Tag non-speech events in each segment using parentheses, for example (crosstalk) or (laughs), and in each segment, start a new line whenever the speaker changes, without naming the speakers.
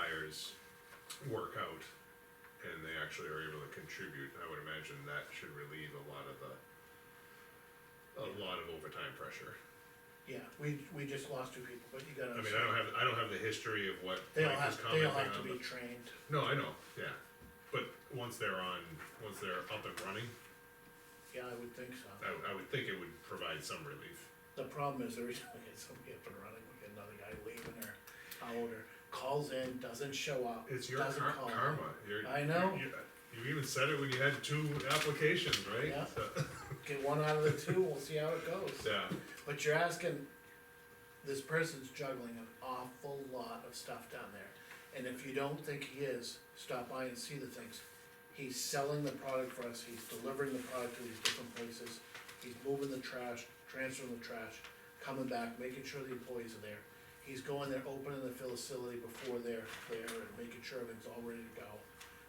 engineers work out and they actually are able to contribute, I would imagine that should relieve a lot of the, a lot of overtime pressure.
Yeah, we, we just lost two people, but you gotta.
I mean, I don't have, I don't have the history of what
They'll
Mike was
have, they'll
commenting on,
have to be
but-
trained,
No, I know, yeah, but once they're on, once they're up and running,
yeah, I would think so.
I, would- I would think it would provide some relief.
The problem is every time we get somebody up and running, we get another guy leaving or out or calls in, doesn't show up.
It's your
doesn't
kar-
call in.
karma, you're.
I know.
you- You you even said it when you had two applications, right?
Yeah.
So- (laughs)
Get one out of the two, we'll see how it goes.
Yeah,
But you're asking, this person's juggling an awful lot of stuff down there. And if you don't think he is, stop by and see the things. He's selling the product for us, he's delivering the product to these different places, he's moving the trash, transferring the trash, coming back, making sure the employees are there. He's going there, opening the facility before they're there and making sure everything's all ready to go.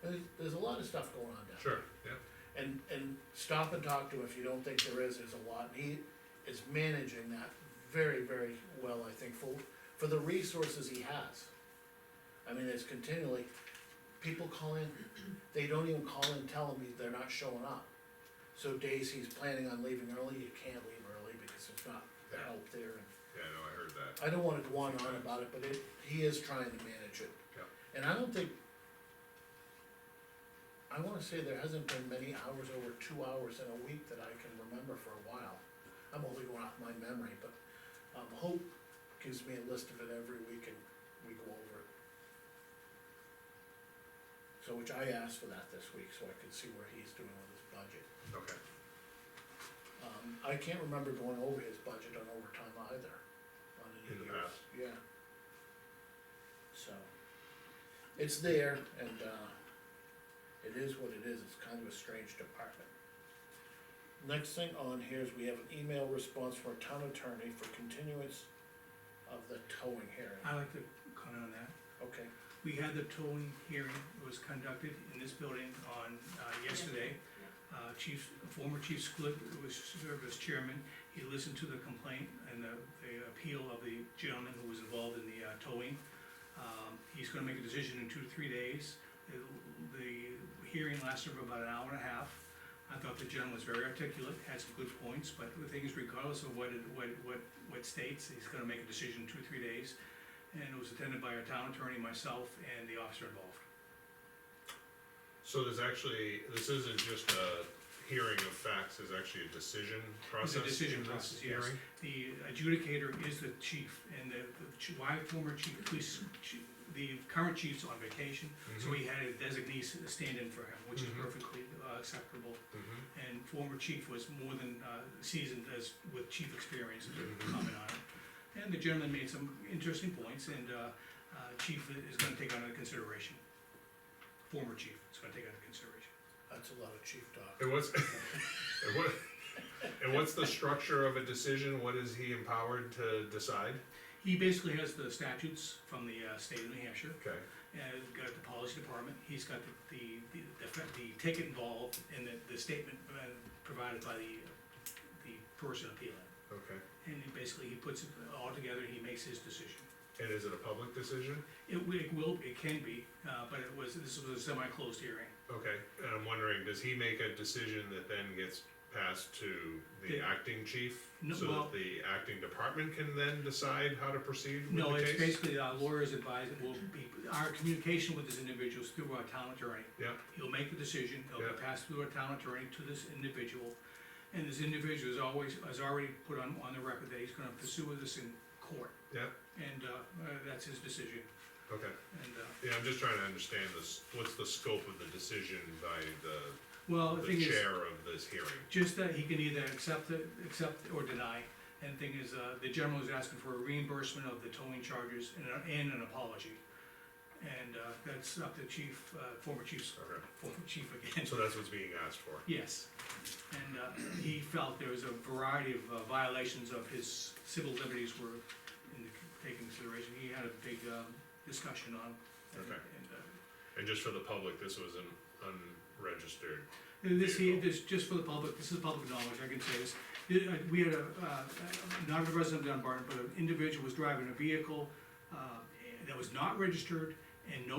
And there's, there's a lot of stuff going on down there
sure, yeah,
and, and stop and talk to him if you don't think there is, there's a lot, and he is managing that very, very well, I think, for, for the resources he has. I mean, it's continually, people call in, they don't even call in, tell him they're not showing up. So days he's planning on leaving early, you can't leave early because there's not the help there, and
yeah, no, I heard that,
I don't wanna go on and on about it, but it, he is trying to manage it.
Yeah.
And I don't think. I wanna say there hasn't been many hours over two hours in a week that I can remember for a while. I'm only going off my memory, but, um, Hope gives me a list of it every week and we go over it. So, which I asked for that this week, so I could see where he's doing with his budget.
okay,
Um, I can't remember going over his budget on overtime either, on any
In the
years.
past.
yeah. So, it's there, and, uh, it is what it is, it's kind of a strange department. Next thing on here is we have an email response from our town attorney for continuance of the towing hearing,
I like to comment on that.
okay,
We had the towing hearing, it was conducted in this building on, uh, yesterday. Uh, Chief, former Chief Split was served as chairman, he listened to the complaint and the, the appeal of the gentleman who was involved in the uh, towing. Um, he's gonna make a decision in two to three days. The- The hearing lasted for about an hour and a half. I thought the gentleman was very articulate, had some good points, but the thing is regardless of what, it- what, what, what states, he's gonna make a decision in two, three days. And it was attended by our town attorney, myself, and the officer involved.
so there's actually, this isn't just a hearing of facts, there's actually a decision
It's
process.
a decision
in this
process, yes.
hearing?
The adjudicator is the chief, and the, the chi- my former chief, police, chi- the current chief's on vacation,
Mm-hmm.
so he had a designee s- stand in for him, which is
Mhm.
perfectly uh, acceptable.
Mhm.
And former chief was more than uh, seasoned as, with chief experience
Mhm.
to comment on it. And the gentleman made some interesting points, and uh, uh, chief is gonna take under consideration. Former chief is gonna take under consideration.
that's a lot of chief talk.
And what's, (laughs) and what, and what's the structure of a decision, what is he empowered to decide?
He basically has the statutes from the uh, state of New Hampshire,
Okay,
and we've got the policy department, he's got the, the, the, the- the ticket involved and the, the statement uh, provided by the, the person appealing.
okay,
And he basically, he puts it all together, he makes his decision.
and is it a public decision?
It wi- it will, it can be, uh, but it was, this was a semi-closed hearing.
Okay, and I'm wondering, does he make a decision that then gets passed to the
The-
acting chief?
No,
So
well-
that the acting department can then decide how to proceed with the case?
No, it's basically our lawyer's advice, will be, our communication with this individual is through our town attorney.
Yeah,
He'll make the decision, it'll
Yeah.
be passed through a town attorney to this individual. And this individual is always, has already put on, on the record that he's gonna pursue this in court.
yeah,
And, uh, uh, that's his decision,
okay.
and, uh,
Yeah, I'm just trying to understand this, what's the scope of the decision by the,
well, Oh, the thing
the
is,
chair of this hearing?
just that he can either accept it, accept or deny. And the thing is, uh, the general is asking for a reimbursement of the towing charges and, a- and an apology. And, uh, that's up to chief, uh, former chief,
Okay,
former chief again.
so that's what's being asked for.
Yes, and uh, he felt there was a variety of uh, violations of his civil liberties were in the- taken consideration. He had a big um, discussion on. and-
Okay.
and, uh,
And just for the public, this was an unregistered,
And uh, This, he-
Beautiful.
this, just for the public, this is public knowledge, I can say this. The- uh, We had a, uh, not a resident of Dunbarton, but an individual was driving a vehicle uh, that was not registered and no